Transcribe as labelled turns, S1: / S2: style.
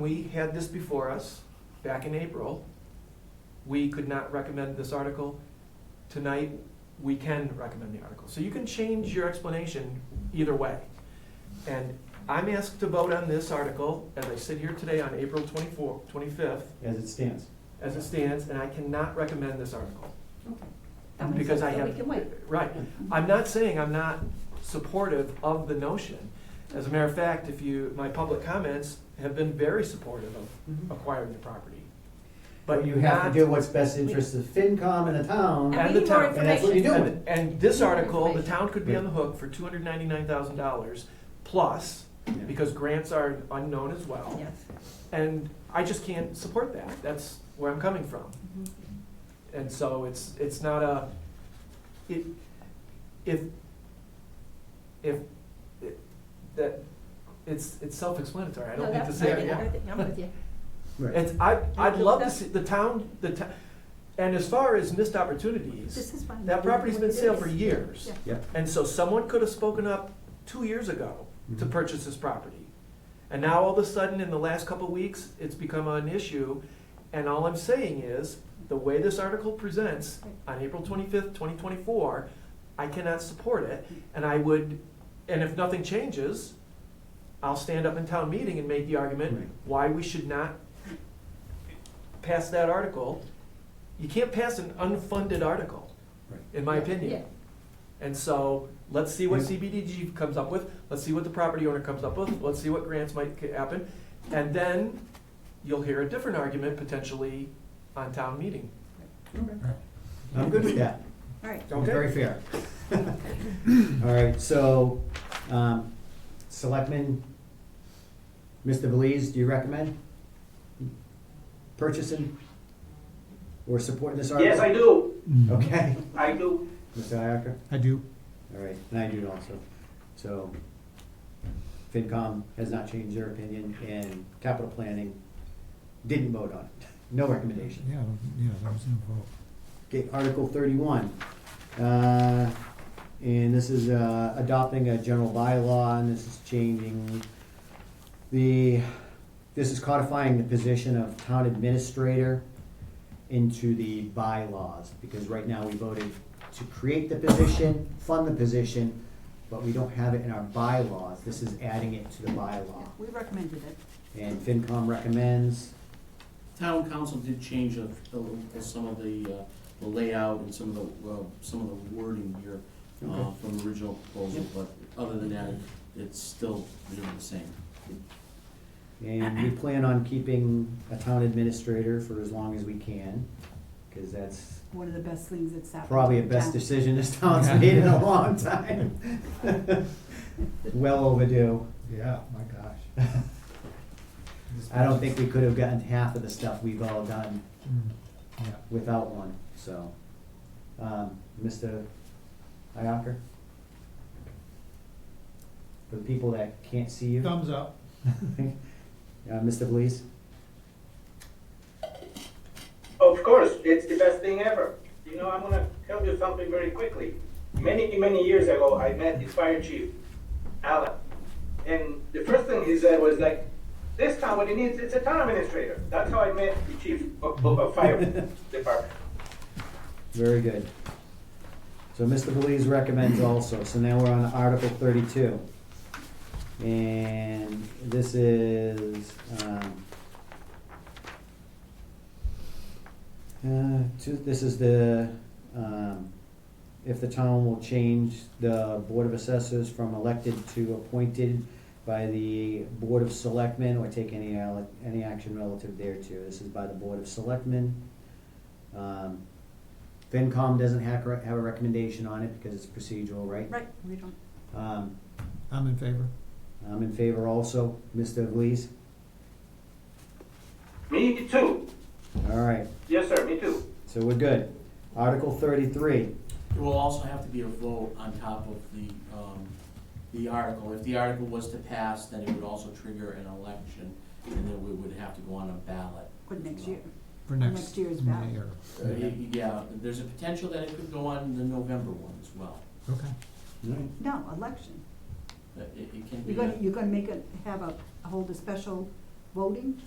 S1: We had this before us back in April. We could not recommend this article. Tonight, we can recommend the article. So you can change your explanation either way. And I'm asked to vote on this article as I sit here today on April 24th, 25th,
S2: as it stands.
S1: as it stands, and I cannot recommend this article.
S3: Okay. That makes
S1: Because
S3: sense,
S1: I
S3: so
S1: have-
S3: We can wait.
S1: Right. I'm not saying I'm not supportive of the notion. As a matter of fact, if you, my public comments have been very supportive of acquiring the property.
S2: But you have to
S1: Mm-hmm. not-
S2: do what's best interest of FinCom and the town,
S1: And
S3: And
S1: the
S3: we need more
S1: town-
S2: and that's what you
S3: information.
S2: do.
S1: And, and this article, the town could be on the
S2: Right.
S1: hook for two hundred ninety-nine thousand dollars plus, because grants are unknown as well.
S3: Yes.
S1: And I just can't support that, that's where I'm coming from. Mm-hmm. And so it's, it's not a, it, if, if, it- that, it's, it's self-explanatory, I
S3: No,
S1: don't need to
S3: that's
S1: say
S3: fine.
S1: it.
S3: I think I'm with you.
S2: Right.
S1: It's, I, I'd love to
S3: Discuss-
S1: see, the town, the town, and as far as missed opportunities,
S3: This is fine.
S1: that property's been
S3: sale
S1: sale for years.
S3: Yeah.
S2: Yep.
S1: And so someone could have spoken up two years ago to
S2: Mhm.
S1: purchase this property. And now all of a sudden, in the last couple of weeks, it's become an issue. And all I'm saying is, the way this article presents on April twenty-fifth, twenty twenty-four, I cannot support it. And I would, and if nothing changes, I'll stand up in town meeting and make the
S2: Right.
S1: argument why we should not pass that article. You can't pass an unfunded article,
S2: Right.
S1: in my opinion.
S3: Yeah.
S1: And so, let's see what
S2: Yeah.
S1: CBDG comes up with, let's see what the property owner comes up with, let's see what grants might ca- happen. And then you'll hear a different argument potentially on town meeting.
S2: I'm good with that.
S3: All right.
S1: Okay.
S2: Very fair. All right, so, um, Selectman, Mr. Belize, do you recommend purchasing or supporting this article?
S4: Yes, I do.
S2: Okay,
S4: I do.
S2: Mr. Iacocca?
S5: I do.
S2: All right, and I do also. So FinCom has not changed their opinion and capital planning didn't vote on it. No recommendation.
S5: Yeah, yeah, that was involved.
S2: Okay, Article thirty-one. Uh, And this is uh, adopting a general bylaw and this is changing the, this is codifying the position of town administrator into the bylaws, because right now we voted to create the position, fund the position, but we don't have it in our bylaws. This is adding it to the bylaw.
S3: We recommended it.
S2: And FinCom recommends,
S6: Town council did change a, a little- some of the, uh, the layout and some of the, uh, some of the wording here, uh,
S2: Okay.
S6: from the original proposal, but other than that, it's still, you know, the same.
S2: and we plan on keeping a town administrator for as long as we can, because that's
S3: One of the best things that's happened.
S2: probably a best decision this town's made in a long time. Well overdue.
S5: Yeah, my gosh.
S2: I don't think we could have gotten half of the stuff we've all done
S5: Mm, Yeah,
S2: without one, so. Um, Mr. Iacocca? For the people that can't see you.
S5: thumbs up.
S2: Uh, Mr. Belize?
S4: Of course, it's the best thing ever. You know, I'm gonna tell you something very quickly. Many, many years ago, I met the fire chief, Alan. And the first thing he said was like, this town, what it needs, it's a town administrator. That's how I met the chief of, of, of fire department.
S2: Very good. So Mr. Belize recommends also, so now we're on Article thirty-two. And this is, um, uh, to, this is the, um, if the town will change the Board of Assessors from elected to appointed by the Board of Selectmen or take any, al- any action relative thereto. This is by the Board of Selectmen. Um, FinCom doesn't have, a- have a recommendation on it because it's procedural, right?
S3: Right, we don't.
S2: Um,
S5: I'm in favor.
S2: I'm in favor also, Mr. Lees.
S4: Me too.
S2: All right,
S4: Yes, sir, me too.
S2: so we're good. Article thirty-three,
S6: It will also have to be a vote on top of the, um, the article. If the article was to pass, then it would also trigger an election, and then we would have to go on a ballot.
S3: For next year.
S5: For
S3: Next
S5: next
S3: year's ballot.
S5: mayor.
S6: Uh, y- Yeah, there's a potential that it could go on the November one as well.
S5: Okay.
S2: all right,
S3: No, election.
S6: Uh, It, it can be.
S3: You're
S6: a-
S3: gonna, you're gonna make it, have a, hold a special voting